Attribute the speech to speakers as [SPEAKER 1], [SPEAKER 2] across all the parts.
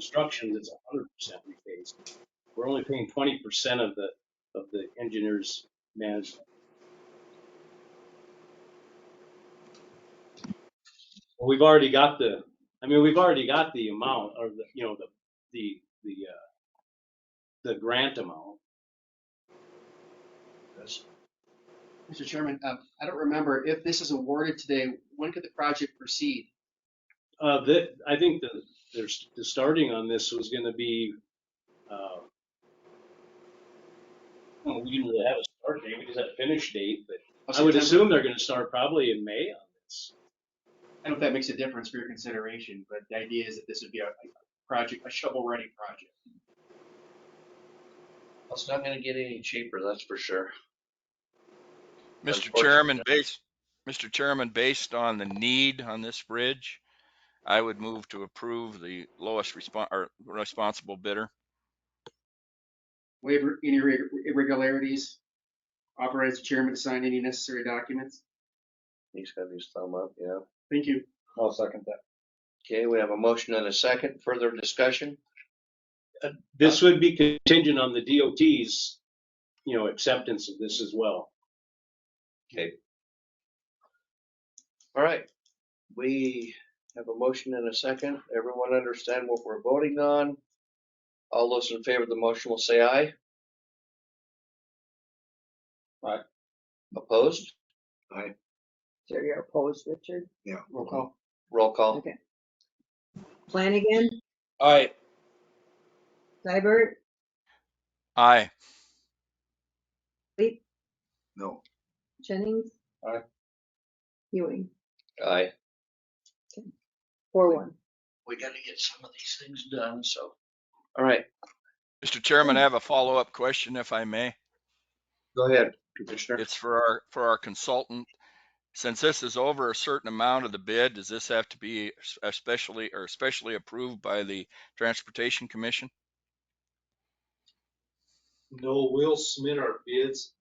[SPEAKER 1] construction that's hundred percent rephased. We're only paying twenty percent of the, of the engineer's management. Well, We've already got the, I mean, we've already got the amount or the, you know, the, the, the, uh, the grant amount.
[SPEAKER 2] Mr. Chairman, uh, I don't remember if this is awarded today, when could the project proceed?
[SPEAKER 1] Uh, that, I think the, there's, the starting on this was gonna be, uh, well, we didn't really have a start date, we just had a finish date, but I would
[SPEAKER 2] September?
[SPEAKER 1] assume they're gonna start probably in May on this.
[SPEAKER 2] I don't know if that makes a difference for your consideration, but the idea is that this would be a a project, a shovel-ready project.
[SPEAKER 3] It's not gonna get any cheaper, that's for sure.
[SPEAKER 4] Mr.
[SPEAKER 3] Unfortunately,
[SPEAKER 4] Chairman, based, Mr. Chairman, based on the need on this bridge, I would move to approve the lowest respon or responsible bidder.
[SPEAKER 2] Waive any irre- irregularities, authorize the chairman to sign any necessary documents.
[SPEAKER 3] He's got his thumb up, yeah.
[SPEAKER 2] Thank you.
[SPEAKER 5] I'll second that.
[SPEAKER 3] Okay, we have a motion and a second, further discussion?
[SPEAKER 1] This would be contingent on the DOT's, you know, acceptance of this as well.
[SPEAKER 3] All right, we have a motion and a second, everyone understand what we're voting on? All those in favor of the motion will say aye.
[SPEAKER 5] Aye.
[SPEAKER 3] Opposed?
[SPEAKER 6] Sure, you're opposed, Richard?
[SPEAKER 2] Roll call.
[SPEAKER 3] Roll call.
[SPEAKER 6] Okay. Flanagan,
[SPEAKER 5] Aye.
[SPEAKER 6] Seibert,
[SPEAKER 4] Aye.
[SPEAKER 5] No.
[SPEAKER 6] Jennings?
[SPEAKER 5] Aye.
[SPEAKER 6] Ewing,
[SPEAKER 3] Aye.
[SPEAKER 6] four one.
[SPEAKER 3] We gotta get some of these things done, so. All right,
[SPEAKER 4] Mr. Chairman, I have a follow-up question if I may.
[SPEAKER 3] go ahead, Commissioner.
[SPEAKER 4] It's for our, for our consultant. Since this is over a certain amount of the bid, does this have to be especially or especially approved by the Transportation Commission?
[SPEAKER 7] No, we'll submit our bids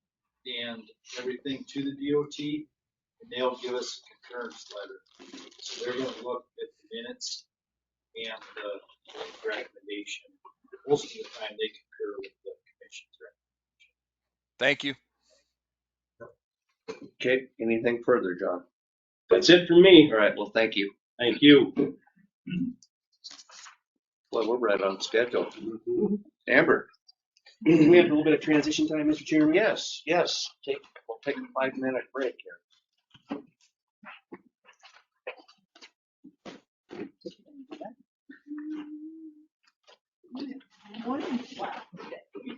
[SPEAKER 7] and everything to the DOT, and they'll give us a concurrence letter. So they're gonna look at the minutes and the recommendation. Most of the time, they concur with the commission's recommendation.
[SPEAKER 4] Thank you.
[SPEAKER 3] Okay, anything further, John?
[SPEAKER 1] That's it for me.
[SPEAKER 3] All right, well, thank you.
[SPEAKER 1] Thank you.
[SPEAKER 3] Well, we're right on schedule. Amber?
[SPEAKER 2] We have a little bit of transition time, Mr. Chairman.
[SPEAKER 3] Yes, yes, take, we'll take a five-minute break here.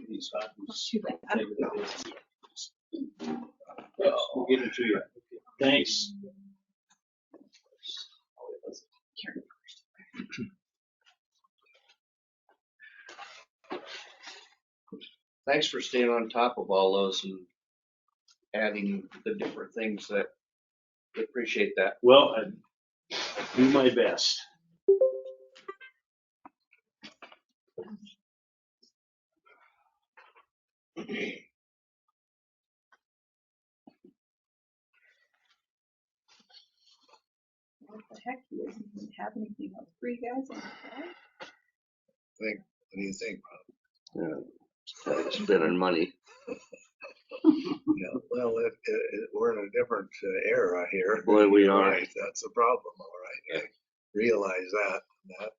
[SPEAKER 1] These copies.
[SPEAKER 6] Too bad.
[SPEAKER 1] We'll get them to you. Thanks.
[SPEAKER 3] Thanks for staying on top of all those and adding the different things that, we appreciate that.
[SPEAKER 1] Well, I- I do my best.
[SPEAKER 6] What the heck, he doesn't even have anything else for you guys on the phone?
[SPEAKER 5] What do you think?
[SPEAKER 3] Spending money.
[SPEAKER 5] Yeah, well, it, it, it- we're in a different uh, era here.
[SPEAKER 3] Boy, we
[SPEAKER 5] Right, That's the problem, all right. I realize that, that. but,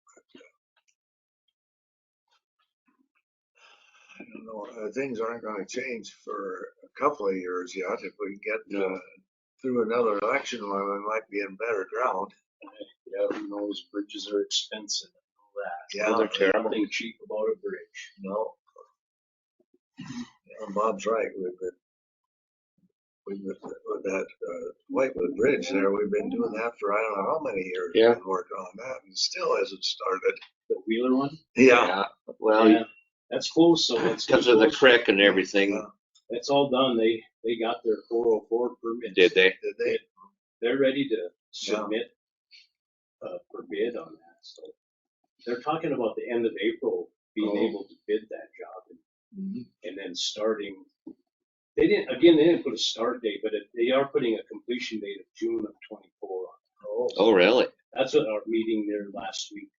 [SPEAKER 5] uh, I don't know, uh, things aren't gonna change for a couple of years yet. If we get, uh, through another election, well, we might be in better ground.
[SPEAKER 1] Yeah, who knows, bridges are expensive and all that.
[SPEAKER 5] Yeah,
[SPEAKER 3] they're
[SPEAKER 5] you
[SPEAKER 3] terrible.
[SPEAKER 1] Nothing cheap about a bridge.
[SPEAKER 5] know. Yeah, Bob's right, we've been, we've been, with that, uh, Whitewood Bridge there, we've been doing that for I don't know how many years. We've
[SPEAKER 3] Yeah.
[SPEAKER 5] been Working on that and still hasn't started.
[SPEAKER 1] The Wheeler one?
[SPEAKER 5] Yeah.
[SPEAKER 3] Well,
[SPEAKER 1] That's close, so that's.
[SPEAKER 3] because of the crick and everything,
[SPEAKER 1] That's all done. They, they got their four oh four permits.
[SPEAKER 3] did they?
[SPEAKER 5] Did they,
[SPEAKER 1] They're ready to submit, uh, for bid on that, so. They're talking about the end of April, being
[SPEAKER 3] Oh. Mm-hmm.
[SPEAKER 1] able to bid that job and, and then starting. They didn't, again, they didn't put a start date, but it- they are putting a completion date of June of twenty-four.
[SPEAKER 3] Oh, really?
[SPEAKER 1] That's what our meeting there last week